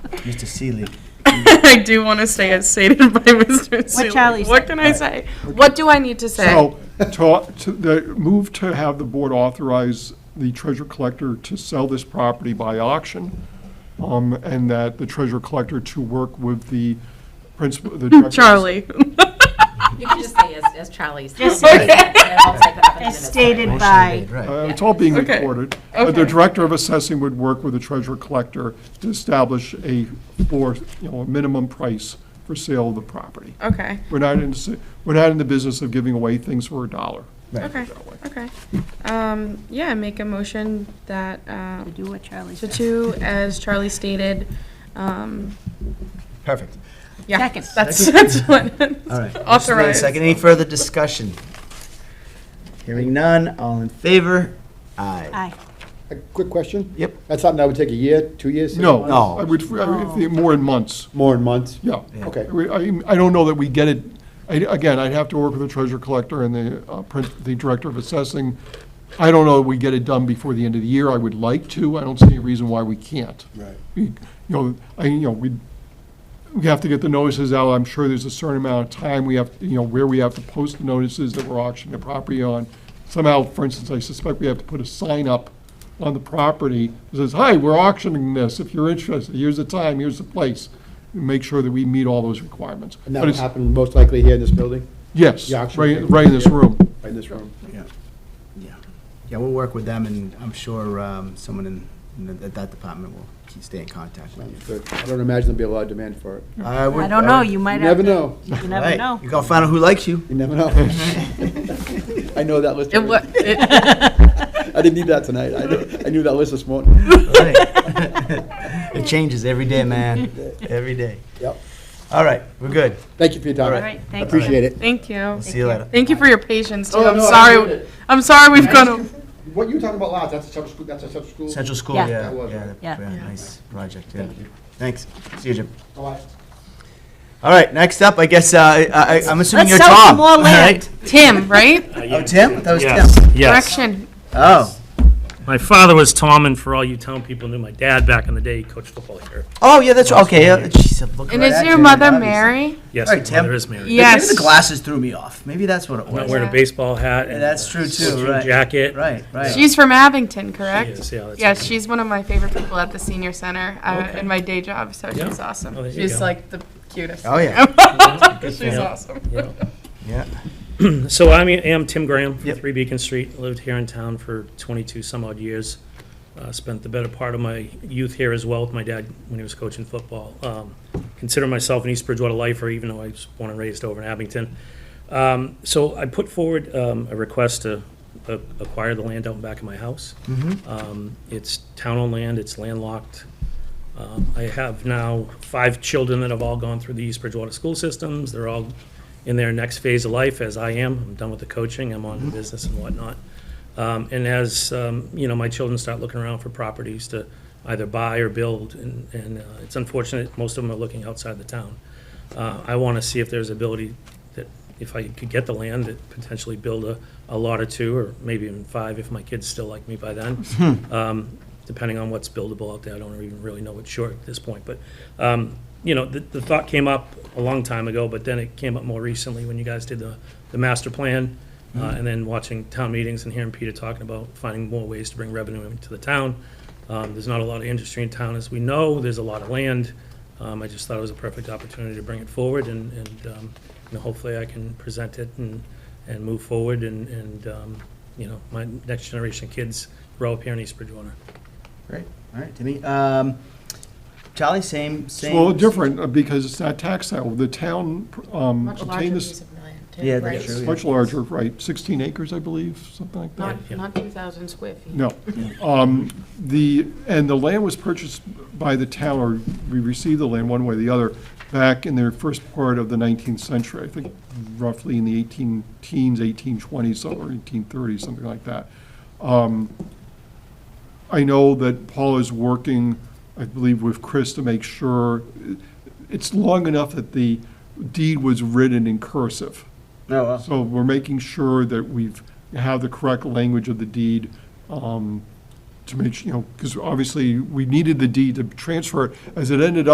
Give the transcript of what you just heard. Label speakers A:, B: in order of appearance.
A: Mr. Seeley.
B: I do want to stay as stated by Mr. Seeley.
C: Charlie
B: What can I say? What do I need to say?
D: So, to, to, the move to have the board authorize the treasure collector to sell this property by auction, um, and that the treasure collector to work with the principal, the director.
B: Charlie,
E: You can just say as, as Charlie's.
C: Just-
A: Okay.
E: And I'll type it up in the
C: As
E: minutes.
C: stated by,
D: Uh, it's all being
B: Okay.
D: recorded. Uh,
B: Okay.
D: The director of assessing would work with the treasure collector to establish a, for, you know, a minimum price for sale of the property.
B: okay,
D: We're not in, s- we're not in the business of giving away things for a dollar.
B: okay, okay. Um, yeah, make a motion that, uh,
C: do what Charlie
B: to
C: said.
B: two, as Charlie stated, um,
A: Perfect.
B: yeah.
C: Second.
B: That's, that's what,
A: All right. Motion made in
B: authorized.
A: Second, any further discussion? Hearing none, all in favor? Aye.
C: Aye.
F: A quick question?
A: Yep.
F: That's something that would take a year, two years? six
D: No.
F: months?
A: No.
D: I would, I would
B: Oh.
D: think more in months,
F: More in months?
D: yeah.
F: Okay.
D: We- I, I don't know that we get it, I, again, I'd have to work with the treasure collector and the, uh, prin- the director of assessing. I don't know that we get it done before the end of the year, I would like to, I don't see any reason why we can't.
F: Right.
D: We- You know, I, you know, we, we have to get the notices out, I'm sure there's a certain amount of time we have, you know, where we have to post the notices that we're auctioning the property on. Somehow, for instance, I suspect we have to put a sign up on the property that says, hi, we're auctioning this, if you're interested, here's the time, here's the place. Make sure that we meet all those requirements.
F: And that
D: But
F: will
D: it's-
F: happen most likely here in this building?
D: Yes,
F: The auction
D: right,
F: will
D: right in this
F: take place
D: room.
F: here, Right in this room?
A: Yeah. Yeah, Yeah. we'll work with them, and I'm sure um, someone in- in, the- that department will keep- stay in contact with you.
F: Good. I don't imagine there'll be a lot of demand for it. You
A: I would-
C: I don't
A: I
C: know,
A: would-
C: you might have.
F: uh, never know.
C: You never
A: Right.
C: know.
A: You're gonna find out who likes you.
F: You never know. I know that list.
B: It wa-
F: already.
B: it-
F: I didn't need that tonight. I knew, I knew that list this morning.
A: Right. It changes every day, man, every day.
F: Yep.
A: All right, we're good.
F: Thank you for your time.
C: All right, thank you.
F: Appreciate it.
B: Thank you.
A: See you later.
B: Thank you for your patience, too.
F: Oh,
B: I'm
F: no, I enjoyed
B: sorry,
F: it.
B: I'm sorry we've gone,
F: What you were talking about last, that's a separate school, that's a separate school.
A: Central School,
C: Yeah.
A: yeah,
F: That was
A: yeah,
F: right.
A: yeah,
C: Yeah.
A: nice project, yeah. Thanks, see you, Jim.
F: All right.
A: All right, next up, I guess, uh, I, I- I'm assuming you're
C: Let's
A: Tom.
C: sell some more
A: all
C: land.
A: right?
B: Tim, right?
A: Oh, Tim? That was
G: Yes,
A: Tim.
G: yes.
B: Correction.
A: Oh,
G: My father was Tom, and for all you town people knew, my dad back in the day he coached football here.
A: oh, yeah, that's, okay, yeah, jeez, I'm looking
B: And
A: right
B: is
A: at
B: your
A: you,
B: mother
A: obviously.
B: Mary?
G: Yes,
A: All right,
G: my
A: Tim.
G: mother is married.
B: Yes.
A: Maybe the glasses threw me off, maybe that's what it
G: I'm not
A: was.
G: wearing a baseball hat.
A: Yeah,
G: and
A: That's
G: a
A: true too,
G: sweatshirt
A: right,
G: Jacket.
A: right, right.
B: She's from Abington,
G: She
B: correct?
G: is, yeah, that's
B: Yes,
G: right.
B: she's one of my favorite people at the senior center uh,
G: Okay.
B: in my day job, so
G: Yeah.
B: she's awesome.
G: Oh, there you
B: she's
G: go.
B: like the cutest.
A: Oh, yeah.
B: she's
G: Yeah.
B: awesome.
G: Yeah.
A: Yeah,
G: So I am Tim Graham, from
A: Yep.
G: Three Beacon Street, lived here in town for 22 some odd years. Uh, Spent the better part of my youth here as well with my dad when he was coaching football. Um, Consider myself an East Bridgewater lifer, even though I was born and raised over in Abington. Um, So I put forward um, a request to uh, acquire the land out back of my house. Um, It's town-owned land, it's landlocked. Um, I have now five children that have all gone through the East Bridgewater school systems. They're all in their next phase of life, as I am. I'm done with the coaching, I'm on to business and whatnot. Um, And as, um, you know, my children start looking around for properties to either buy or build, and and, uh, it's unfortunate, most of them are looking outside the town. Uh, I want to see if there's ability that, if I could get the land, that potentially build a, a lot or two, or maybe even five, if my kids still like me by then. Um, Depending on what's buildable out there, I don't even really know what's short at this point, but, um, you know, the, the thought came up a long time ago, but then it came up more recently when you guys did the, the master plan, uh, and then watching town meetings and hearing Peter talking about finding more ways to bring revenue into the town. Um, There's not a lot of industry in town, as we know, there's a lot of land. Um, I just thought it was a perfect opportunity to bring it forward, and, and, um, you know, hopefully I can present it and, and move forward, and, and, um, you know, my next generation kids grow up here in East Bridgewater.
A: great, all right, Timmy. Um, Charlie, same, same.
D: Well, different, uh, because it's not tax sale, the town um, obtained this,
A: Yeah, that's true. yeah.
D: much larger, right, 16 acres, I believe, something like that.
G: Yeah.
E: Not 2,000 square feet.
D: No. Um, The, and the land was purchased by the town, or we received the land one way or the other, back in the first part of the 19th century, I think roughly in the 18 teens, 1820s, or 1830s, something like that. Um, I know that Paul is working, I believe, with Chris to make sure, it's long enough that the deed was written in cursive.
A: No, uh,
D: So we're making sure that we've, have the correct language of the deed um, to make, su- you know, because obviously we needed the deed to transfer it. As it ended up.